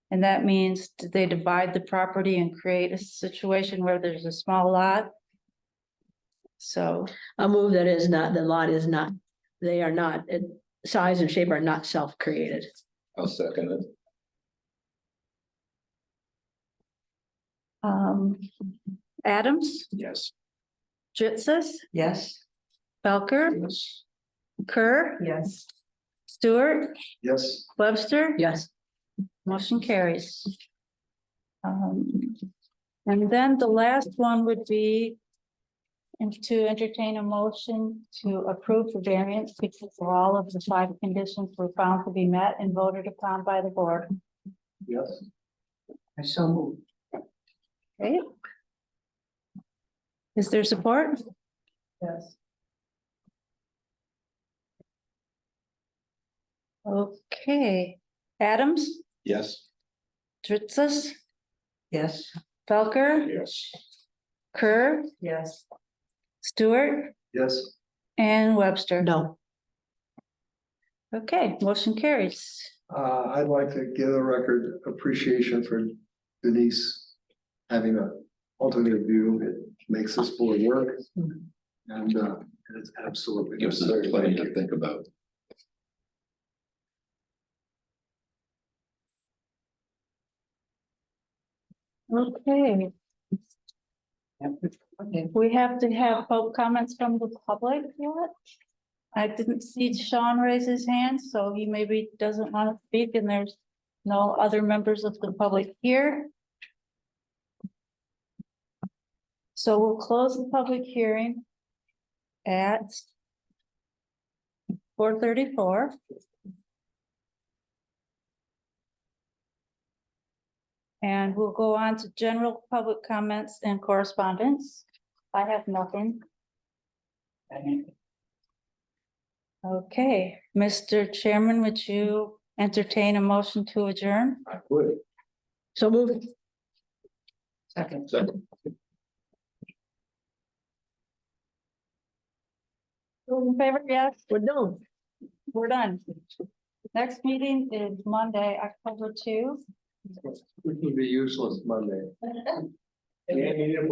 And that means did they divide the property and create a situation where there's a small lot? So, A move that is not, the lot is not, they are not, it- size and shape are not self-created. I'll second it. um, Adams, Yes. Jitsis, Yes. Belker, Yes. Kerr, Yes. Stewart, Yes. Webster. Yes, Motion carries. Um, and then the last one would be and to entertain a motion to approve the variance because all of the five conditions were found to be met and voted upon by the board. Yes. I so moved. Okay. Is there support? Yes. Okay, Adams, Yes. Dritsas, Yes. Felker, Yes. Kerr, Yes. Stewart, Yes. and Webster. no, Okay, motion carries. Uh, I'd like to give a record appreciation for Denise having an alternate view. It makes this board work. And, uh, it's absolutely. Gives us necessary. plenty to think about. Okay, Okay. we have to have both comments from the public yet. I didn't see Sean raise his hand, so he maybe doesn't want to speak and there's no other members of the public here. So we'll close the public hearing at four thirty-four. And we'll go on to general public comments and correspondence. I have nothing. Okay, Mr. Chairman, would you entertain a motion to adjourn? I would. so moved. Second. Second. Those in favor, yes, We're done. we're done. Next meeting is Monday, October two. Which would be useless Monday. Yeah, you need a